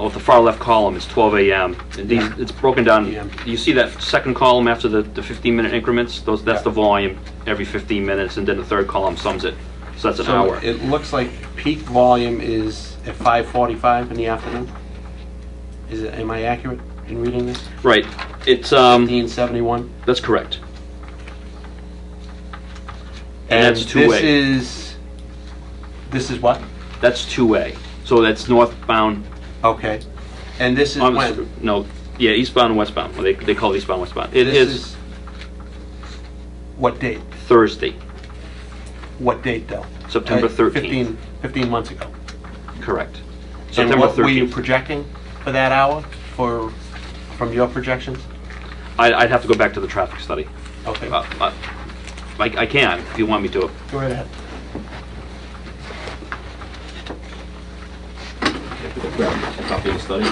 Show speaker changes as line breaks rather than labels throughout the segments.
Well, the far left column is 12 a.m. And these, it's broken down,
PM.
you see that second column after the 15-minute increments? Those, that's
Yeah.
the volume every 15 minutes, and then the third column sums it, so that's an
So
hour.
it looks like peak volume is at 5:45 in the afternoon? Is it, am I accurate in reading this?
Right, it's, um,
1571?
that's correct. And that's two-way.
This is, this is what?
That's two-way, so that's northbound,
Okay. And this is
um,
when?
no, yeah, eastbound and westbound, Well, they, they call it eastbound, westbound. It
This
is
What date?
Thursday,
What date, though?
September
Uh,
13th.
15 15 months ago.
correct.
And
September
what were you
13th.
projecting for that hour, for, from your projections?
I- I'd have to go back to the traffic study.
Okay,
Uh, uh, I I can, if you want me to.
go right ahead.
Copy of the study.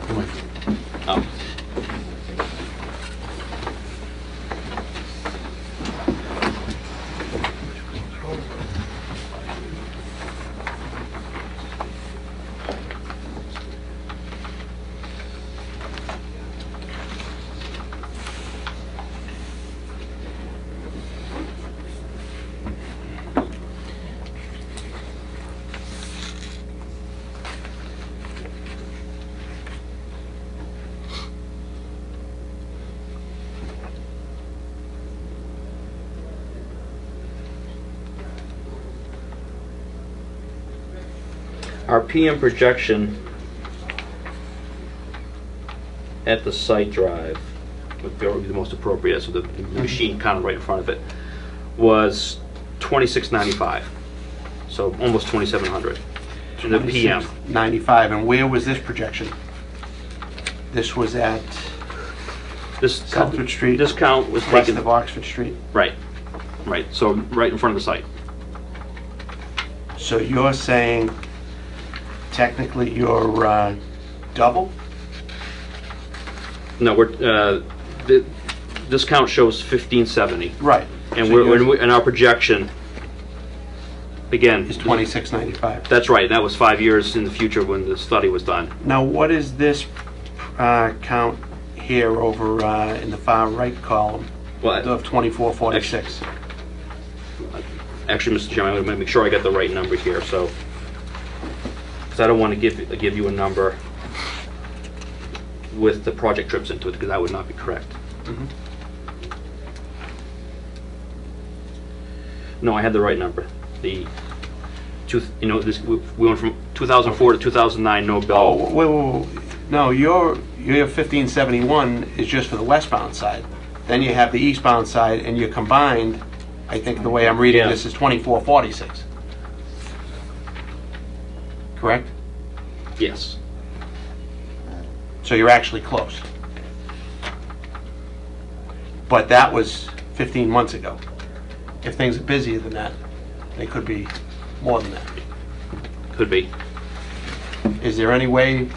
Come on.
Um, Our PM projection at the site drive Mm-hmm. would be would be the most appropriate, so the the machine kind of right in front of it, was 2695, so almost 2700 in the PM.
95, and where was this projection? This was at
This
Comfort Street.
This count was
west
taken,
of Oxford Street.
right, right, so right in front of the site.
So you're saying technically you're uh, double?
No, we're, uh, the- this count shows 1570.
Right.
And
So
we're,
yours
and we- and our projection, again.
Is 2695.
That's right, that was five years in the future when the study was done.
Now, what is this uh, count here over uh, in the far right column
Well,
of 2446?
actually, Mr. Chairman, I'm gonna make sure I got the right number here, so, because I don't want to give, give you a number with the project trips into it, because that would not be correct.
Mm-hmm.
No, I had the right number. The, two, you know, this, we we went from 2004 to 2009, no
Oh,
bill.
wait, wait, wait. No, your, your 1571 is just for the westbound side. Then you have the eastbound side, and you're combined, I think the way I'm reading
Yeah.
this, is 2446. Correct?
Yes,
So you're actually close. But that was 15 months ago. If things are busier than that, they could be more than that.
could be.
Is there any way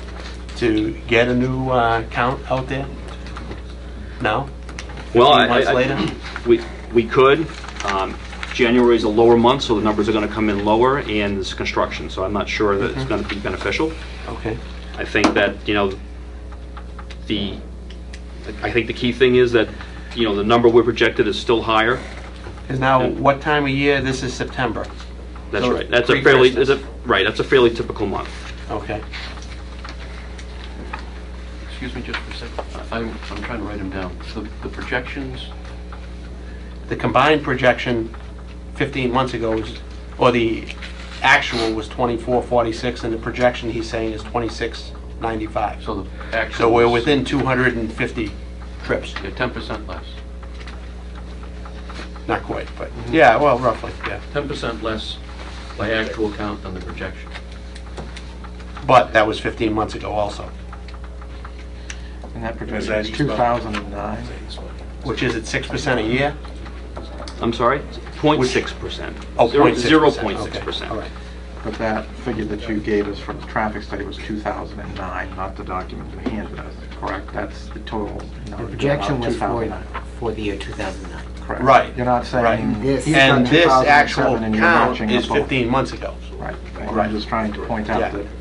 to get a new uh, count out there? No?
Well, I- I-
Months
I-
later?
We, we could. Um, January is a lower month, so the numbers are going to come in lower, and it's construction, so I'm not sure that
Mm-hmm.
it's going to be beneficial.
Okay.
I think that, you know, the, I think the key thing is that, you know, the number we're projected is still higher.
Because now, what time of year? This is September.
That's
So
right. That's a fairly,
pre-Christmas.
it's a- right, that's a fairly typical month.
Okay.
Excuse me just for a second. I'm, I'm trying to write them down. So the projections,
The combined projection 15 months ago was, or the actual was 2446, and the projection he's saying is 2695.
so the actual.
So we're within 250 trips.
Yeah, 10% less.
Not quite, but, yeah, well, roughly, yeah.
10% less by actual count than the projection.
But that was 15 months ago also,
And that projection is 2009.
which is at 6% a year?
I'm sorry? 0.6%.
Oh,
Zero-
0.6%. Okay,
0.6%.
All right.
But that figure that you gave us from the traffic study was 2009, not the document you handed us. Correct. That's the total.
The projection was for,
2009.
for the year 2009.
Correct.
Right,
You're not
right.
saying.
This-
he's
And
done
this
2007
actual
and you're
count
matching
is
up all-
15 months ago.
Right.
Right.
I'm just trying to point out
Yeah.
that